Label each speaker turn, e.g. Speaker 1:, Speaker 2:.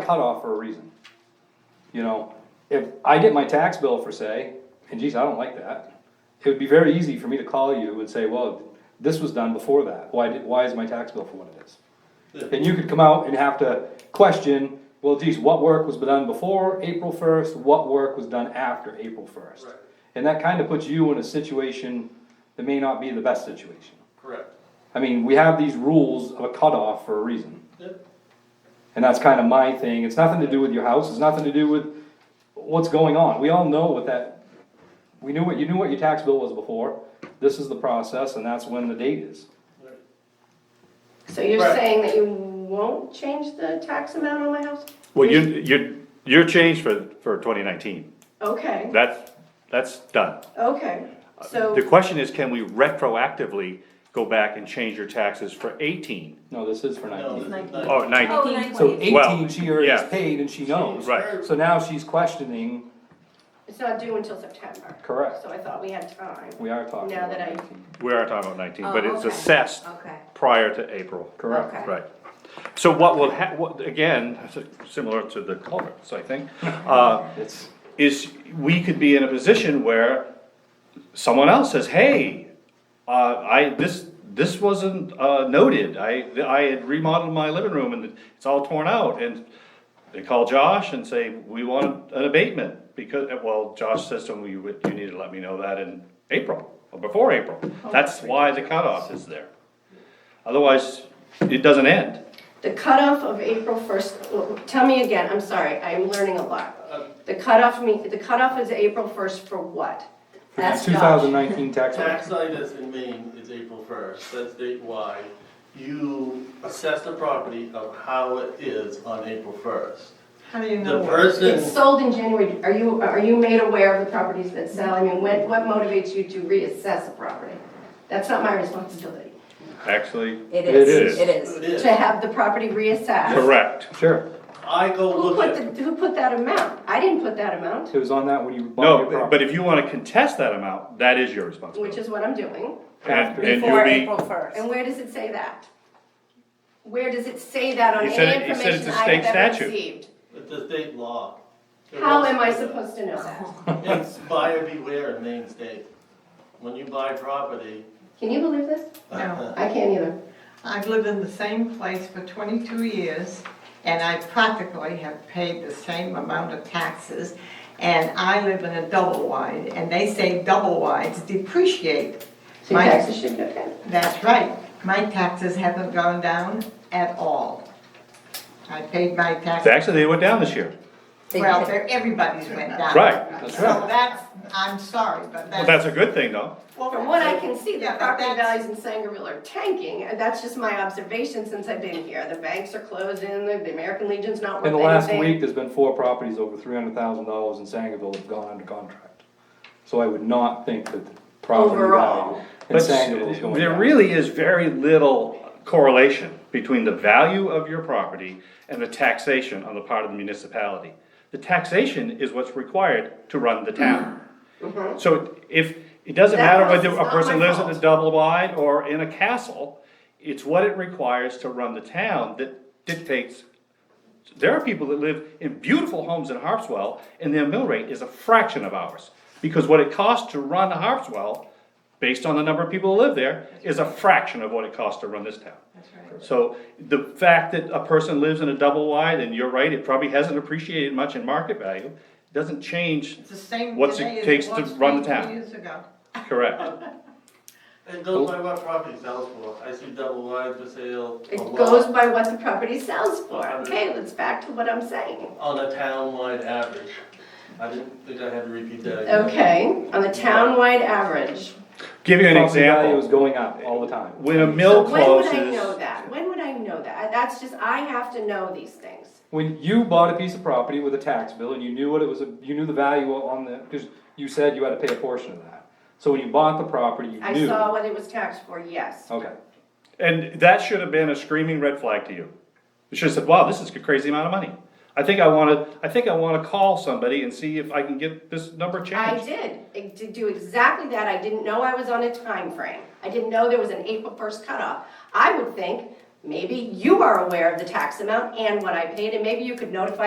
Speaker 1: a cutoff for a reason. You know, if I get my tax bill for say, and geez, I don't like that, it would be very easy for me to call you and say, well, this was done before that, why did, why is my tax bill for what it is? And you could come out and have to question, well, geez, what work was done before April first, what work was done after April first?
Speaker 2: Right.
Speaker 1: And that kinda puts you in a situation that may not be the best situation.
Speaker 2: Correct.
Speaker 1: I mean, we have these rules of a cutoff for a reason.
Speaker 2: Yep.
Speaker 1: And that's kind of my thing, it's nothing to do with your house, it's nothing to do with what's going on, we all know what that, we knew what, you knew what your tax bill was before, this is the process, and that's when the date is.
Speaker 3: So you're
Speaker 2: Right.
Speaker 3: saying that you won't change the tax amount on my house?
Speaker 4: Well, you, you, your change for, for twenty nineteen,
Speaker 3: Okay,
Speaker 4: that's, that's done.
Speaker 3: okay, so,
Speaker 4: Uh, The question is, can we retroactively go back and change your taxes for eighteen?
Speaker 1: No, this is for nineteen.
Speaker 4: Oh,
Speaker 5: Oh,
Speaker 4: nineteen,
Speaker 5: nine
Speaker 1: So
Speaker 5: twenty.
Speaker 1: eighteen, she already
Speaker 4: yeah.
Speaker 1: is paid and she knows.
Speaker 4: right.
Speaker 1: So now she's questioning,
Speaker 3: it's not due until September.
Speaker 1: Correct.
Speaker 3: So I thought we had time.
Speaker 1: we are talking
Speaker 3: Now
Speaker 1: about
Speaker 3: that I-
Speaker 1: nineteen,
Speaker 4: We are talking about nineteen, but
Speaker 5: Oh,
Speaker 4: it's
Speaker 5: okay.
Speaker 4: assessed
Speaker 5: Okay,
Speaker 4: prior to April.
Speaker 1: correct?
Speaker 5: okay.
Speaker 4: Right. So what will hap, what, again, similar to the culverts, I think, uh,
Speaker 1: It's,
Speaker 4: is we could be in a position where someone else says, hey, uh, I, this, this wasn't, uh, noted, I, I had remodeled my living room and it's all torn out, and they call Josh and say, we want an abatement, because, well, Josh says to him, you, would- you need to let me know that in April, or before April, that's why the cutoff is there. Otherwise, it doesn't end.
Speaker 3: The cutoff of April first, tell me again, I'm sorry, I'm learning a lot. The cutoff me, the cutoff is April first for what? That's
Speaker 1: two
Speaker 3: Dodge.
Speaker 1: thousand nineteen tax
Speaker 2: Tax
Speaker 1: rate,
Speaker 2: situs in Maine is April first, that's statewide. You assess the property of how it is on April first.
Speaker 6: How do you
Speaker 2: The
Speaker 6: know?
Speaker 3: It's
Speaker 2: person,
Speaker 3: sold in January, are you, are you made aware of the properties that sell? I mean, what, what motivates you to reassess a property? That's not my responsibility,
Speaker 4: Actually,
Speaker 5: It
Speaker 1: It
Speaker 5: is,
Speaker 1: is.
Speaker 5: it
Speaker 2: it
Speaker 5: is.
Speaker 2: is,
Speaker 3: to have the property reassessed.
Speaker 4: correct,
Speaker 1: sure,
Speaker 2: I go
Speaker 3: Who
Speaker 2: look
Speaker 3: put,
Speaker 2: at,
Speaker 3: the- who put that amount? I didn't put that amount,
Speaker 1: it was on that when you bought your
Speaker 4: no, but
Speaker 1: property.
Speaker 4: if you wanna contest that amount, that is your responsibility.
Speaker 3: which is what I'm doing.
Speaker 4: And, and
Speaker 5: Before
Speaker 4: you'll be,
Speaker 5: April first.
Speaker 3: And where does it say that? Where does it say that on
Speaker 4: He said
Speaker 3: any
Speaker 4: it- he said it's
Speaker 3: information
Speaker 4: a
Speaker 3: I have
Speaker 4: state
Speaker 3: ever
Speaker 4: statute.
Speaker 3: received?
Speaker 2: it's the state law.
Speaker 3: How am I supposed to know that?
Speaker 2: It's buyer beware in Maine state. When you buy property,
Speaker 3: Can you believe this?
Speaker 6: No,
Speaker 3: I can't either.
Speaker 6: I've lived in the same place for 22 years, and I practically have paid the same amount of taxes. And I live in a double wide, and they say double wides depreciate.
Speaker 3: So your
Speaker 6: My,
Speaker 3: taxes should go down.
Speaker 6: that's right, my taxes haven't gone down at all. I paid my taxes,
Speaker 4: actually, they went down this year.
Speaker 5: They
Speaker 6: well,
Speaker 5: did it.
Speaker 6: they're- everybody's went down.
Speaker 4: Right.
Speaker 1: That's
Speaker 6: So
Speaker 1: right.
Speaker 6: that's, I'm sorry, but
Speaker 4: Well,
Speaker 6: that's.
Speaker 4: that's a good thing though.
Speaker 6: Well,
Speaker 3: From what I can see, the
Speaker 6: yeah, but
Speaker 3: property
Speaker 6: that's-
Speaker 3: values in Sangerville are tanking, and that's just my observation since I've been here. The banks are closing, the the American Legion's not worth
Speaker 1: In the last
Speaker 3: anything.
Speaker 1: week, there's been four properties over three hundred thousand dollars in Sangerville have gone under contract. So I would not think that the property value
Speaker 3: Overall.
Speaker 1: in
Speaker 4: But
Speaker 1: Sangerville is going
Speaker 4: There
Speaker 1: down.
Speaker 4: really is very little correlation between the value of your property and the taxation on the part of the municipality. The taxation is what's required to run the town. So if, it doesn't
Speaker 3: That
Speaker 4: matter
Speaker 3: house
Speaker 4: whether
Speaker 3: is
Speaker 4: a
Speaker 3: not
Speaker 4: person
Speaker 3: my
Speaker 4: lives in a
Speaker 3: fault.
Speaker 4: double wide or in a castle, it's what it requires to run the town that dictates. There are people that live in beautiful homes in Harpswell and their mill rate is a fraction of ours. Because what it costs to run Harpswell, based on the number of people who live there, is a fraction of what it costs to run this town. So the fact that a person lives in a double wide, and you're right, it probably hasn't appreciated much in market value, doesn't change,
Speaker 6: It's the same
Speaker 4: What's it
Speaker 6: today as
Speaker 4: takes
Speaker 6: it
Speaker 4: to
Speaker 6: was
Speaker 4: run the
Speaker 6: 22
Speaker 4: town.
Speaker 6: years ago.
Speaker 4: correct?
Speaker 2: it goes by what property sells for. I see double wides for sale.
Speaker 3: It
Speaker 2: a
Speaker 4: Oh,
Speaker 2: lot.
Speaker 3: goes by what the property sells for. Okay, let's back to what I'm saying.
Speaker 2: on a town-wide average. I didn't think I had to repeat that again.
Speaker 3: Okay, on the town-wide average.
Speaker 4: Give you an
Speaker 1: Property value is
Speaker 4: example,
Speaker 1: going up all the time.
Speaker 4: when a mill
Speaker 3: So When would I know
Speaker 4: closes,
Speaker 3: that? When would I know that? I- That's just, I have to know these things.
Speaker 1: When you bought a piece of property with a tax bill and you knew what it was, you knew the value on the, because you said you had to pay a portion of that. So when you bought the property, you
Speaker 3: I
Speaker 1: knew.
Speaker 3: saw what it was taxed for, yes.
Speaker 1: Okay,
Speaker 4: and that should have been a screaming red flag to you. You should have said, wow, this is a crazy amount of money. I think I wanna, I think I wanna call somebody and see if I can get this number
Speaker 3: I
Speaker 4: changed.
Speaker 3: did, I did do exactly that. I didn't know I was on a time frame. I didn't know there was an April first cutoff. I would think Maybe you are aware of the tax amount and what I paid, and maybe you could notify